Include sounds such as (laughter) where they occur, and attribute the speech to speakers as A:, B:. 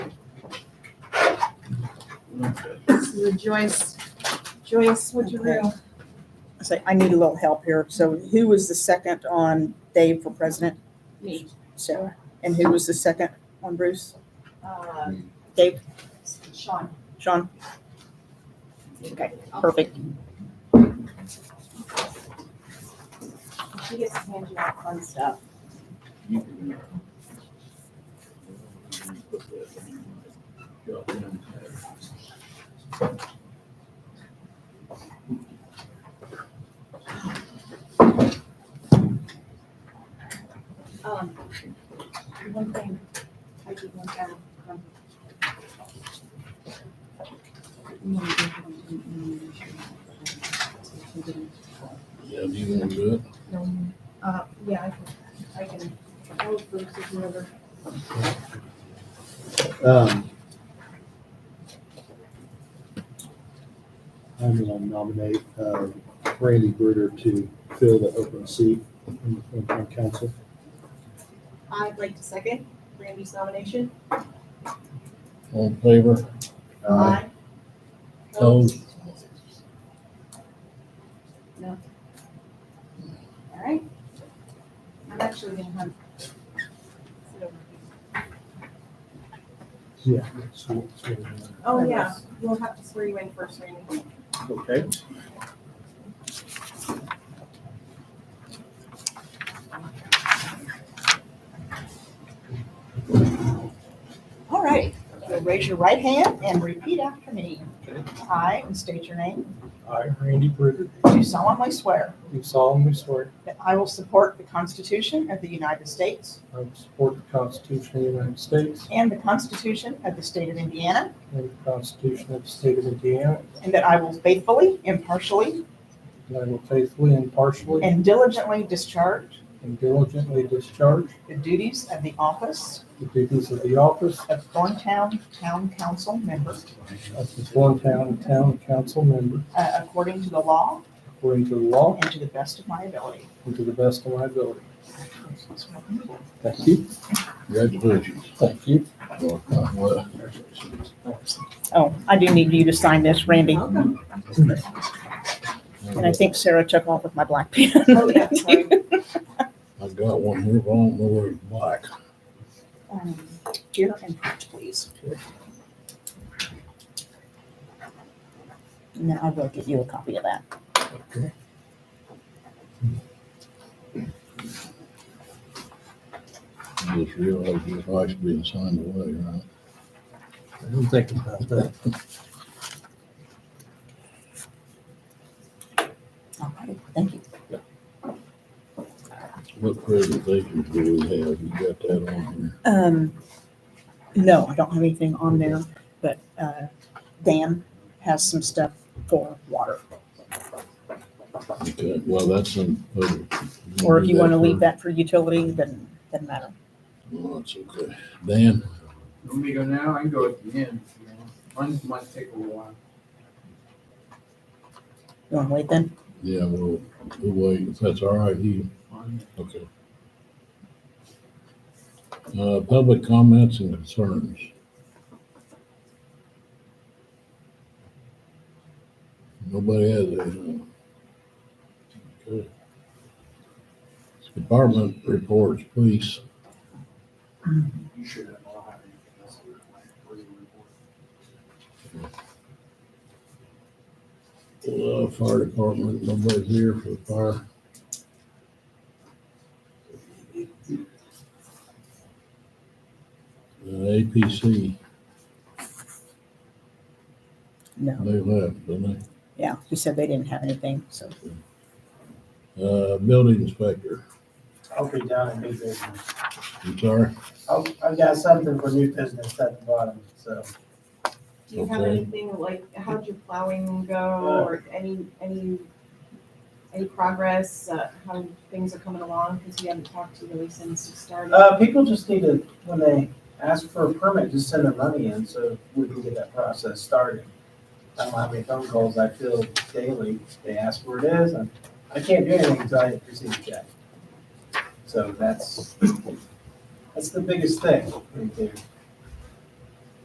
A: This is a Joyce, Joyce, what'd you
B: Okay.
A: do?
B: I say, I need a little help here. So who was the second on Dave for president?
A: Me.
B: Sarah. And who was the second on Bruce?
A: Uh,
B: Dave,
A: Sean.
B: Sean? Okay, perfect.
A: She gets to hand you out fun stuff. Um, one thing, I did one down. um, Um,
C: Yeah, do you want to do it?
A: Uh, yeah, I can, I can, I'll Bruce is whoever.
D: Um, I'm gonna nominate uh, Randy Bruder to fill the open seat in the Flint County Council.
A: I'd like to second Randy's nomination.
C: All in favor?
A: Aye.
C: Opposed?
A: No. All right. I'm actually gonna hunt. Sit over here.
D: Yeah. so- so, uh,
A: Oh, yeah, you'll have to swear you in first, Randy.
D: Okay.
B: All right. So raise your right hand and repeat after me. I, and state your name,
E: I, Randy Bruder,
B: do solemnly swear
E: do solemnly swear
B: that I will support the Constitution of the United States
E: I will support the Constitution of the United States
B: and the Constitution of the State of Indiana,
E: and the Constitution of the State of Indiana,
B: and that I will faithfully, impartially,
E: and I will faithfully, impartially,
B: and diligently discharge
E: and diligently discharge
B: the duties of the office
E: the duties of the office
B: of Thorntown Town Council member
E: of the Thorntown Town Council member
B: uh, according to the law
E: according to the law
B: and to the best of my ability.
E: and to the best of my ability. Thank you.
C: Congratulations.
E: Thank you.
C: Well, uh, well,
B: Oh, I do need you to sign this, Randy.
A: Welcome.
B: And I think Sarah took off with my black pen.
A: Oh, yeah,
B: (laughs)
A: sorry.
C: I've got one here, but I don't know where it's black.
B: Um, Here and please. Now I will give you a copy of that.
C: Okay. I Just realized this life's being signed away, right?
E: I didn't think about that.
B: All right, thank you.
C: What presentations do we have? You got that on here?
B: Um, no, I don't have anything on there, but, uh, Dan has some stuff for water.
C: Okay, well, that's in.
B: Or
C: Mm-hmm.
B: if you want to leave that for utility, then, doesn't matter.
C: No, it's okay. Dan,
F: Want me to go now? I can go at the end. if you want. Mine might take a while.
B: You want to wait then?
C: yeah, well, we'll wait. If that's all right, you,
F: Mine-
C: okay. Uh, public comments and concerns. Nobody has anything. Okay. Department reports, please.
F: You should have all had anything else in your life where you were
C: Uh, fire department, nobody's here for the fire. Uh, APC,
B: No.
C: they left, didn't
B: Yeah, he said they didn't have anything, so.
C: they? Uh, building inspector,
G: I'll be down in new business.
C: I'm sorry,
G: I've, I've got something for new business at the bottom, so.
A: Do you have
C: Okay.
A: anything like, how'd your plowing go or any, any, any progress, uh, how things are coming along? Because we haven't talked to you really since you started.
G: Uh, people just need to, when they ask for a permit, just send their money in so we can get that process started. I don't know how many phone calls I feel daily. They ask where it is, and I can't do anything until I receive a check. So that's, that's the biggest thing right there.